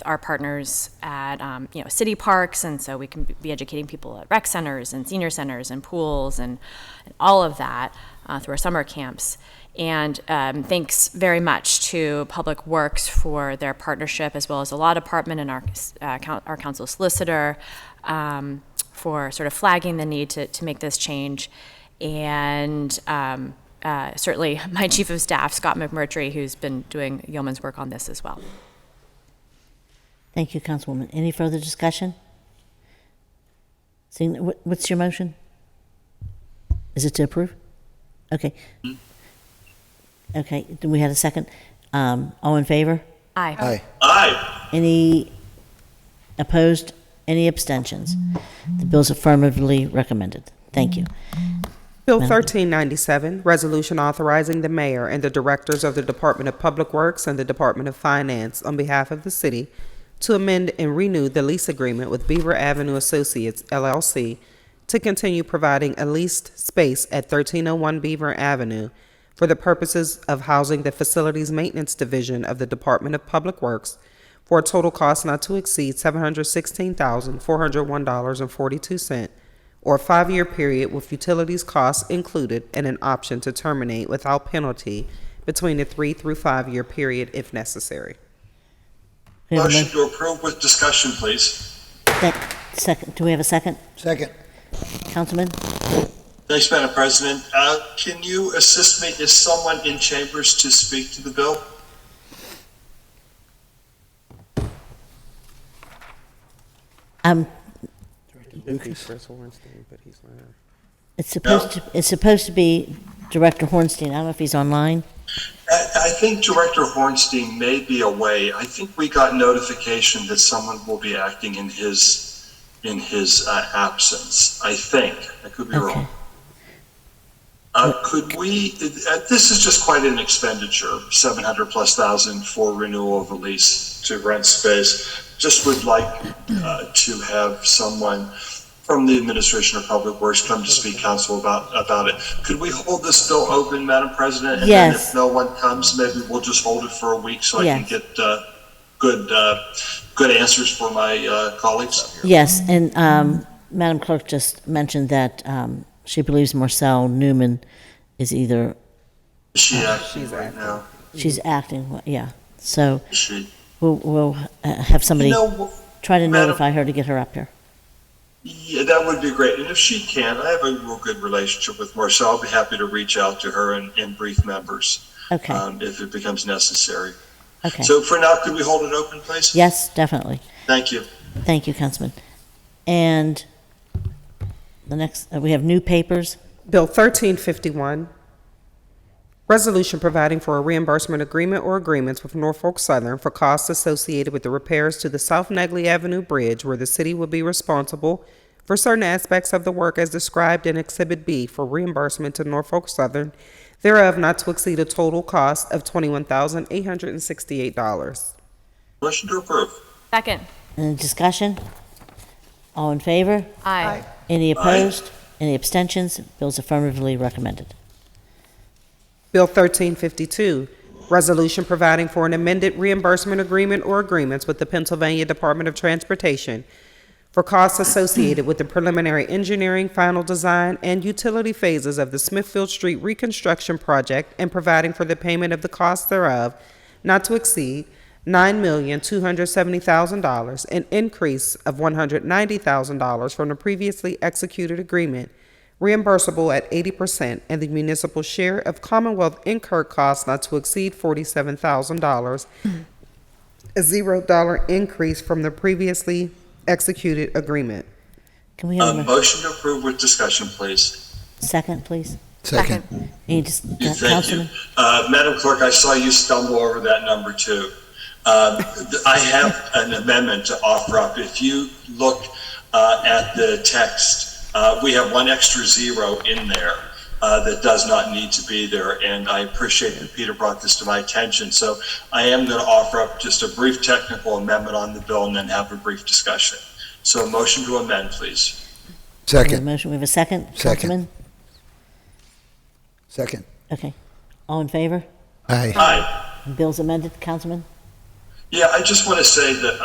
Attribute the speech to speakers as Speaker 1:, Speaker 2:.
Speaker 1: our partners at um, you know city parks, and so we can be educating people at rec centers and senior centers and pools and, and all of that uh, through our summer camps. And um, thanks very much to Public Works for their partnership, as well as the law department and our uh, coun- our council solicitor um, for sort of flagging the need to to make this change. And um, uh, certainly my chief of staff, Scott McMurtry, who's been doing yeoman's work on this as well.
Speaker 2: Thank you, Councilwoman. Any further discussion? Seeing, wh- what's your motion? Is it to approve? Okay. Okay, do we have a second? Um, all in favor?
Speaker 1: Aye.
Speaker 3: Aye.
Speaker 2: Any opposed? Any abstentions? The bill's affirmatively recommended. Thank you.
Speaker 4: Bill 1397, resolution authorizing the mayor and the directors of the Department of Public Works and the Department of Finance on behalf of the city to amend and renew the lease agreement with Beaver Avenue Associates LLC to continue providing a leased space at 1301 Beaver Avenue for the purposes of housing the Facilities Maintenance Division of the Department of Public Works for a total cost not to exceed $716,401.42 or a five-year period with utilities costs included and an option to terminate without penalty between a three through five-year period if necessary.
Speaker 2: We have a
Speaker 5: Motion to approve with discussion, please.
Speaker 2: mo- sec- Second, do we have a second?
Speaker 3: Second.
Speaker 2: Councilman?
Speaker 5: Thanks, Madam President. Uh, Can you assist me? Is someone in chambers to speak to the bill?
Speaker 2: Um, it's supposed to, it's supposed to be Director Hornstein. I don't know if he's online.
Speaker 5: I I think Director Hornstein may be away. I think we got notification that someone will be acting in his, in his uh, absence, I think. I could be
Speaker 2: Okay.
Speaker 5: wrong. Uh, Could we, uh, this is just quite an expenditure, 700 plus thousand for renewal of a lease to rent space. Just would like uh, to have someone from the administration of Public Works come to speak council about, about it. Could we hold this bill open, Madam President? And then
Speaker 2: Yes.
Speaker 5: if no one comes, maybe we'll just hold it for a week so I can
Speaker 2: Yes.
Speaker 5: get uh, good, uh, good answers for my uh, colleagues.
Speaker 2: Yes, and um, Madam Clerk just mentioned that um, she believes Marcel Newman is either,
Speaker 5: Is she uh, acting right now?
Speaker 2: she's acting, yeah. So
Speaker 5: Is she?
Speaker 2: we'll, we'll uh, have somebody
Speaker 5: You know,
Speaker 2: try to
Speaker 5: Madam-
Speaker 2: notify her to get her up here.
Speaker 5: Yeah, that would be great. And if she can, I have a real good relationship with Marcia. I'll be happy to reach out to her and, and brief members
Speaker 2: Okay,
Speaker 5: um, if it becomes necessary.
Speaker 2: okay.
Speaker 5: So for now, could we hold it open, please?
Speaker 2: Yes, definitely.
Speaker 5: Thank you.
Speaker 2: Thank you, Councilman. And the next, uh, we have new papers.
Speaker 4: Bill 1351, resolution providing for a reimbursement agreement or agreements with Norfolk Southern for costs associated with the repairs to the South Negley Avenue Bridge, where the city will be responsible for certain aspects of the work as described in Exhibit B for reimbursement to Norfolk Southern, thereof not to exceed a total cost of $21,868.
Speaker 5: Motion to approve.
Speaker 1: Second.
Speaker 2: Any discussion? All in favor?
Speaker 1: Aye.
Speaker 2: Any opposed? Any abstentions? Bill's affirmatively recommended.
Speaker 4: Bill 1352, Resolution Providing for an Amended Reimbursement Agreement or Agreements with the Pennsylvania Department of Transportation for costs associated with the preliminary engineering, final design, and utility phases of the Smithfield Street Reconstruction Project and providing for the payment of the costs thereof not to exceed $9,270,000, an increase of $190,000 from the previously executed agreement reimbursable at 80% and the municipal share of Commonwealth incurred costs not to exceed $47,000, a $0 increase from the previously executed agreement.
Speaker 2: Can we
Speaker 5: Uh,
Speaker 2: have a
Speaker 5: motion to approve with discussion, please.
Speaker 2: second, please?
Speaker 3: Second.
Speaker 2: Any, dis-
Speaker 5: Thank you.
Speaker 2: Councilman?
Speaker 5: Uh, Madam Clerk, I saw you stumble over that number two. Um, th- I have an amendment to offer up. If you look uh, at the text, uh, we have one extra zero in there uh, that does not need to be there, and I appreciate that Peter brought this to my attention. So I am going to offer up just a brief technical amendment on the bill and then have a brief discussion. So motion to amend, please.
Speaker 2: We have a
Speaker 3: Second.
Speaker 2: motion, we have a second?
Speaker 3: Second.
Speaker 2: Councilman?
Speaker 3: Second.
Speaker 2: Okay. All in favor?
Speaker 3: Aye.
Speaker 5: Aye.
Speaker 2: Bill's amended, Councilman?
Speaker 5: Yeah, I just want to say that